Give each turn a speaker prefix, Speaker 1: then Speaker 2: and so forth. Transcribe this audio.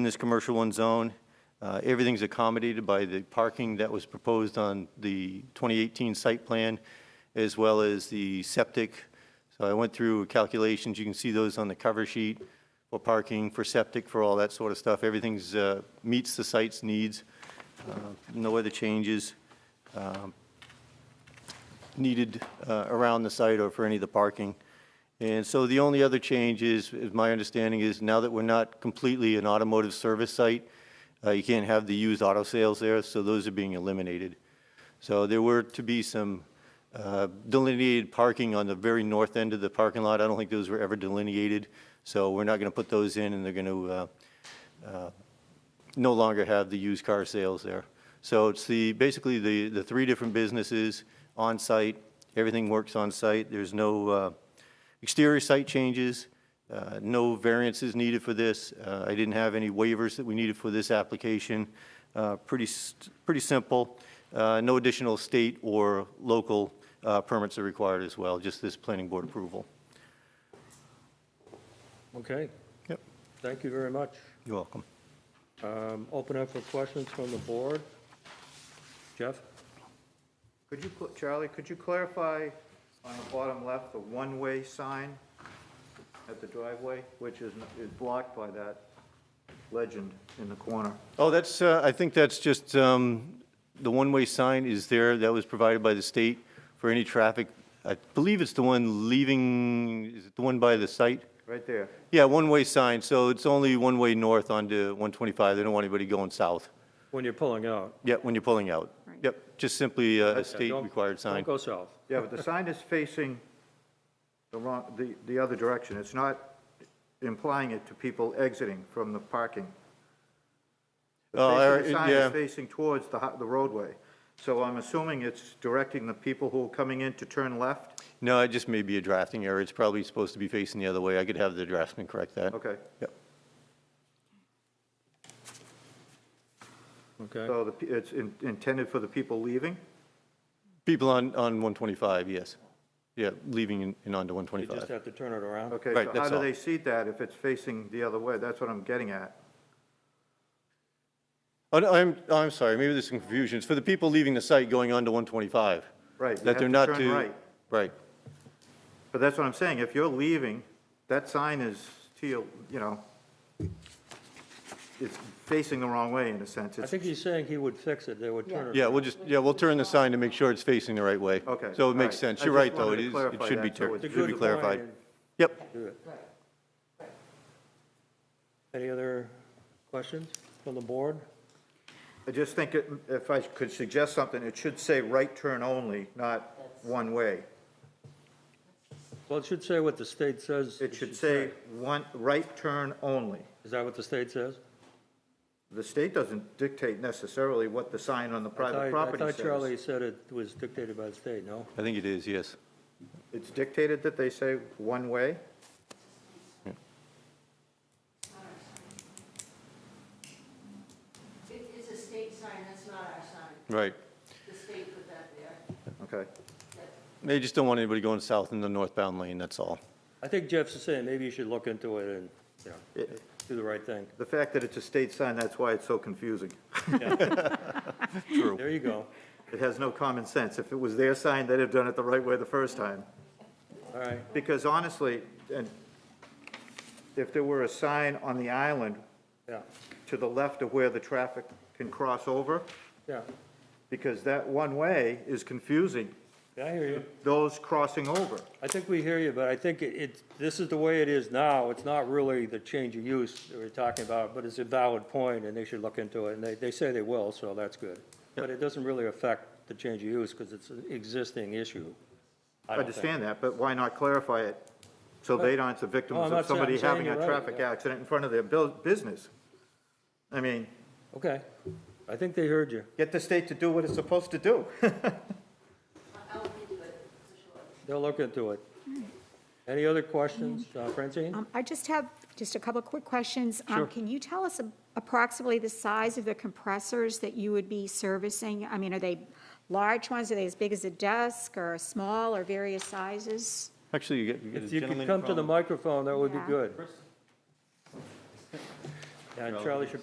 Speaker 1: In this commercial one zone, uh, everything's accommodated by the parking that was proposed on the 2018 site plan, as well as the septic. So I went through calculations, you can see those on the cover sheet, for parking, for septic, for all that sort of stuff. Everything's, uh, meets the site's needs, Uh, no other changes needed uh, around the site or for any of the parking. And so the only other change is, is my understanding is now that we're not completely an automotive service site, uh, you can't have the used auto sales there, so those are being eliminated. So there were to be some uh, delineated parking on the very north end of the parking lot. I don't think those were ever delineated, so we're not going to put those in, and they're uh, going to no longer have the used car sales there. So it's the, basically the, the three different businesses on-site, everything works on-site. There's no uh, exterior site changes, uh, no variances needed for this. Uh, I didn't have any waivers that we needed for this application. Uh, Pretty, s- pretty simple. Uh, No additional state or local uh, permits are required as well, just this planning board approval.
Speaker 2: Okay,
Speaker 1: Yep.
Speaker 2: thank you very much.
Speaker 1: You're welcome.
Speaker 2: Um, Open up for questions from the board. Jeff?
Speaker 3: Could you, cl- Charlie, could you clarify on the bottom left, the one-way sign at the driveway, which is, is blocked by that legend in the corner?
Speaker 1: Oh, that's, uh, I think that's just, um, the one-way sign is there, that was provided by the state for any traffic. I believe it's the one leaving, is it the one by the site?
Speaker 3: Right there.
Speaker 1: Yeah, one-way sign, so it's only one-way north onto 125, they don't want anybody going south.
Speaker 2: When you're pulling out.
Speaker 1: Yeah, when you're pulling out. Yep, just simply a a
Speaker 2: Okay, don't-
Speaker 1: state-required sign.
Speaker 2: Don't go south.
Speaker 3: Yeah, but the sign is facing the wrong, the, the other direction. It's not implying it to people exiting from the parking. The
Speaker 1: Oh,
Speaker 3: face of
Speaker 1: I-
Speaker 3: The sign
Speaker 1: yeah.
Speaker 3: is facing towards the, ho- the roadway. So I'm assuming it's directing the people who are coming in to turn left?
Speaker 1: No, it just may be a drafting error, it's probably supposed to be facing the other way, I could have the draftsman correct that.
Speaker 3: Okay.
Speaker 1: Yep.
Speaker 2: Okay,
Speaker 3: So the, p- it's in- intended for the people leaving?
Speaker 1: People on, on 125, yes. Yeah, leaving and- and onto
Speaker 2: you just
Speaker 1: 125.
Speaker 2: have to turn it around.
Speaker 3: Okay,
Speaker 1: Right,
Speaker 3: so
Speaker 1: that's
Speaker 3: how do
Speaker 1: all.
Speaker 3: they seat that if it's facing the other way? That's what I'm getting at.
Speaker 1: Oh, no, I'm, I'm sorry, maybe there's some confusion. It's for the people leaving the site going on to 125.
Speaker 3: Right, you
Speaker 1: That they're
Speaker 3: have
Speaker 1: not
Speaker 3: to turn
Speaker 1: to.
Speaker 3: right.
Speaker 1: Right.
Speaker 3: But that's what I'm saying, if you're leaving, that sign is to your, you know, it's facing the wrong way in a sense.
Speaker 2: I
Speaker 3: It's,
Speaker 2: think he's saying he would fix it, they would turn it.
Speaker 1: Yeah, we'll just, yeah, we'll turn the sign to make sure it's facing the right way.
Speaker 3: Okay,
Speaker 1: So
Speaker 3: all
Speaker 1: it makes
Speaker 3: right.
Speaker 1: sense.
Speaker 3: I
Speaker 1: You're
Speaker 3: just
Speaker 1: right, though.
Speaker 3: wanted
Speaker 1: It is,
Speaker 3: to
Speaker 1: it
Speaker 3: clarify
Speaker 1: should be,
Speaker 3: that, so
Speaker 1: tur-
Speaker 3: it's
Speaker 1: should
Speaker 2: good
Speaker 1: be
Speaker 2: point
Speaker 1: clarified.
Speaker 2: and
Speaker 1: Yep.
Speaker 2: do it. Any other questions from the board?
Speaker 3: I just think it- if I could suggest something, it should say right turn only, not one way.
Speaker 2: Well, it should say what the state says.
Speaker 3: It should say one, right turn only.
Speaker 2: Is that what the state says?
Speaker 3: The state doesn't dictate necessarily what the sign on
Speaker 2: I
Speaker 3: the
Speaker 2: thought-
Speaker 3: private property
Speaker 2: I
Speaker 3: says.
Speaker 2: thought Charlie said it was dictated by the state, no?
Speaker 1: I think it is, yes.
Speaker 3: It's dictated that they say one way?
Speaker 4: It is a state sign, that's not our sign.
Speaker 1: Right.
Speaker 4: The state put that there.
Speaker 3: Okay.
Speaker 1: They just don't want anybody going south in the northbound lane, that's all.
Speaker 2: I think Jeff's saying maybe you should look into it and, you know,
Speaker 3: It-
Speaker 2: do the right thing.
Speaker 3: The fact that it's a state sign, that's why it's so confusing.
Speaker 1: True.
Speaker 2: There you go.
Speaker 3: It has no common sense. If it was their sign, they'd have done it the right way the first time.
Speaker 2: All right,
Speaker 3: Because honestly, and if there were a sign on the island
Speaker 2: yeah,
Speaker 3: to the left of where the traffic can cross over,
Speaker 2: yeah.
Speaker 3: because that one way is confusing
Speaker 2: Yeah, I hear you.
Speaker 3: those crossing over.
Speaker 2: I think we hear you, but I think it, it's- this is the way it is now. It's not really the change of use that we're talking about, but it's a valid point, and they should look into it, and they, they say they will, so that's good. But it doesn't really affect the change of use, because it's an existing issue.
Speaker 3: I
Speaker 2: don't think.
Speaker 3: understand that, but why not clarify it so they aren't the
Speaker 2: No, I'm
Speaker 3: victims
Speaker 2: not
Speaker 3: of
Speaker 2: saying- I'm
Speaker 3: somebody
Speaker 2: saying
Speaker 3: having a
Speaker 2: you're right,
Speaker 3: traffic
Speaker 2: yeah.
Speaker 3: accident in front of their bu- business? I mean,
Speaker 2: Okay, I think they heard you.
Speaker 3: get the state to do what it's supposed to do.
Speaker 4: I- I'll look into it, for sure.
Speaker 2: They'll look into it. Any other questions, Uh, Francine?
Speaker 5: Um, I just have just a couple of quick questions. Um,
Speaker 2: Sure.
Speaker 5: Can you tell us approximately the size of the compressors that you would be servicing? I mean, are they large ones? Are they as big as a desk or small or various sizes?
Speaker 1: Actually, you
Speaker 2: And Charlie should